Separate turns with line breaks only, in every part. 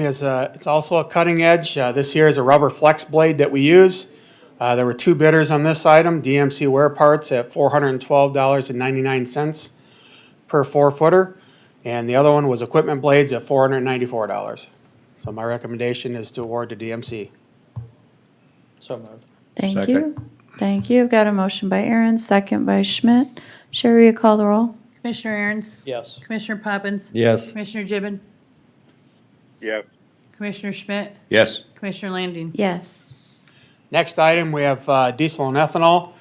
is a, it's also a cutting edge. Uh, This here is a rubber flex blade that we use. Uh, There were two bidders on this item, DMC Wear Parts at $412.99 per four footer. And the other one was Equipment Blades at $494. So my recommendation is to award to DMC.
So moved.
Thank
Second.
you. Thank you. Got a motion by Aaron, second by Schmidt. Sherry, you call the roll?
Commissioner Aaron's,
Yes.
Commissioner Poppins,
Yes.
Commissioner Gibbon,
yes,
Commissioner Schmidt,
Yes.
Commissioner Landine.
Yes.
Next item, we have uh, diesel and ethanol.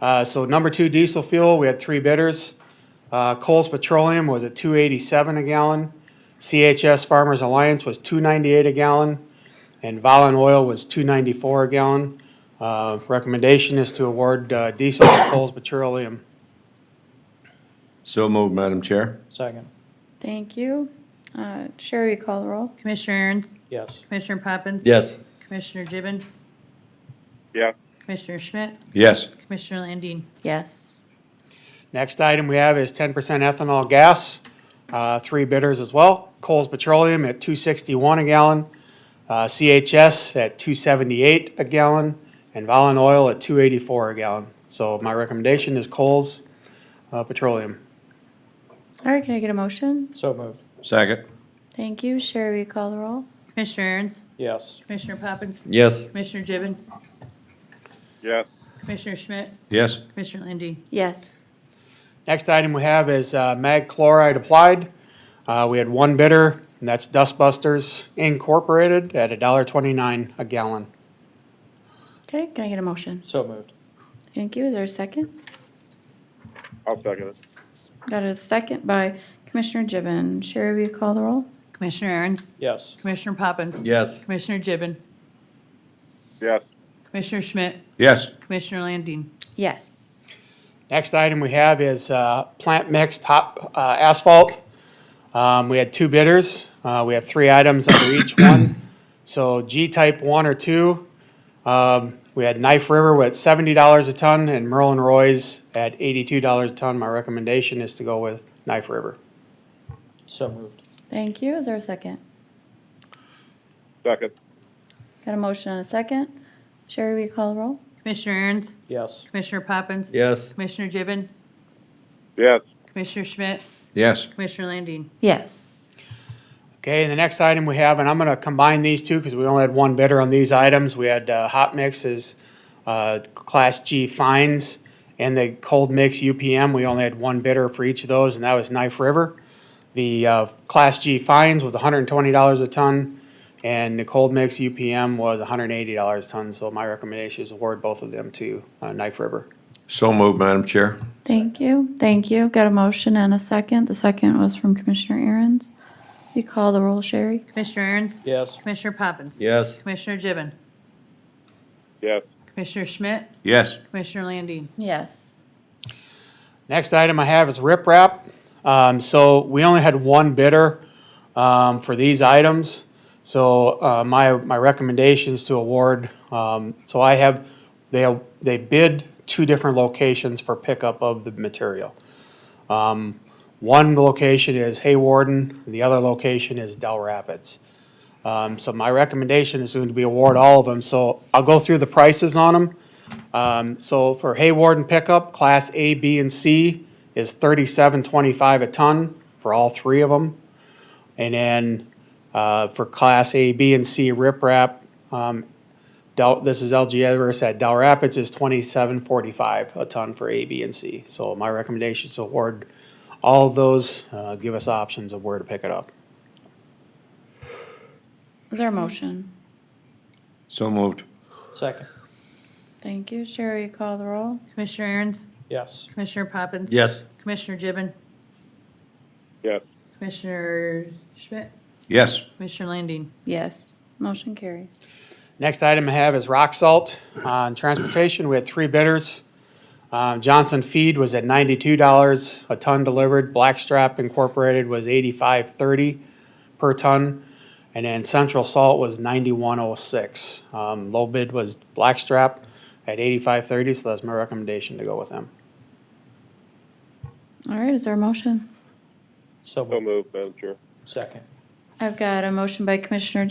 Uh, So number two diesel fuel, we had three bidders. Uh, Coles Petroleum was at two eighty-seven a gallon. CHS Farmers Alliance was two ninety-eight a gallon. And Volun Oil was two ninety-four a gallon. Uh, Recommendation is to award uh, diesel to Coles Petroleum.
So moved, Madam Chair.
Second.
Thank you. Uh, Sherry, you call the roll?
Commissioner Aaron's,
Yes.
Commissioner Poppins. Commissioner Gibbon,
yes,
Commissioner Schmidt,
Yes.
Commissioner Landine.
Yes.
Next item we have is ten percent ethanol gas, uh, three bidders as well. Coles Petroleum at two sixty-one a gallon, uh, CHS at two seventy-eight a gallon, and Volun Oil at two eighty-four a gallon. So my recommendation is Coles, uh, Petroleum.
All right, can I get a motion?
So moved.
Second.
Thank you. Sherry, you call the roll?
Commissioner Aaron's,
Yes.
Commissioner Poppins,
Yes.
Commissioner Gibbon,
yes,
Commissioner Schmidt,
Yes.
Commissioner Landine.
Yes.
Next item we have is uh, mag chloride applied. Uh, We had one bidder, and that's Dustbusters Incorporated at a dollar twenty-nine a gallon.
Okay, can I get a motion?
So moved.
Thank you. Is there a second?
I'll second it,
Got a second by Commissioner Gibbon. Sherry, will you call the roll?
Commissioner Aaron's,
Yes.
Commissioner Poppins,
Yes.
Commissioner Gibbon,
yes,
Commissioner Schmidt,
Yes.
Commissioner Landine.
Yes.
Next item we have is uh, plant mix top uh, asphalt. Um, We had two bidders. Uh, We have three items under each one. So G-type one or two, um, we had Knife River with seventy dollars a ton and Merlin Roy's at eighty-two dollars a ton. My recommendation is to go with Knife River.
So moved.
Thank you. Is there a second?
second,
Got a motion and a second. Sherry, will you call the roll?
Commissioner Aaron's,
Yes.
Commissioner Poppins,
Yes.
Commissioner Gibbon,
yes,
Commissioner Schmidt,
Yes.
Commissioner Landine.
Yes.
Okay, and the next item we have, and I'm gonna combine these two because we only had one bidder on these items. We had uh, hot mixes, uh, Class G fines, and the cold mix UPM. We only had one bidder for each of those, and that was Knife River. The uh, Class G fines was $120 a ton, and the cold mix UPM was $180 a ton. So my recommendation is award both of them to uh, Knife River.
So moved, Madam Chair.
Thank you, thank you. Got a motion and a second. The second was from Commissioner Aaron's. You call the roll, Sherry?
Commissioner Aaron's,
Yes.
Commissioner Poppins.
Yes.
Commissioner Gibbon,
yes,
Commissioner Schmidt,
Yes.
Commissioner Landine.
Yes.
Next item I have is riprap. Um, so we only had one bidder, um, for these items. So, uh, my, my recommendation is to award, um, so I have, they, they bid two different locations for pickup of the material. Um, one location is Haywarden, the other location is Del Rapids. Um, so my recommendation is going to be award all of them, so I'll go through the prices on them. Um, so for Hayward and pickup, class A, B, and C is thirty-seven twenty-five a ton for all three of them. And then, uh, for class A, B, and C riprap, um, Del, this is LG Everest at Del Rapids is twenty-seven forty-five a ton for A, B, and C. So my recommendation is to award all of those, uh, give us options of where to pick it up.
Is there a motion?
So moved.
Second.
Thank you, Sherry, you call the roll?
Commissioner Aaron's,
Yes.
Commissioner Poppins.
Yes.
Commissioner Gibbon,
yes,
Commissioner Schmidt,
Yes.
Commissioner Landine.
Yes. Motion carries.
Next item I have is rock salt. On transportation, we had three bidders. Um, Johnson Feed was at ninety-two dollars a ton delivered. Blackstrap Incorporated was eighty-five thirty per ton. And then Central Salt was ninety-one oh six. Um, low bid was Blackstrap at eighty-five thirty, so that's my recommendation to go with them.
All right, is there a motion?
So
so
moved.
moved, Madam Chair,
Second.
I've got a motion by Commissioner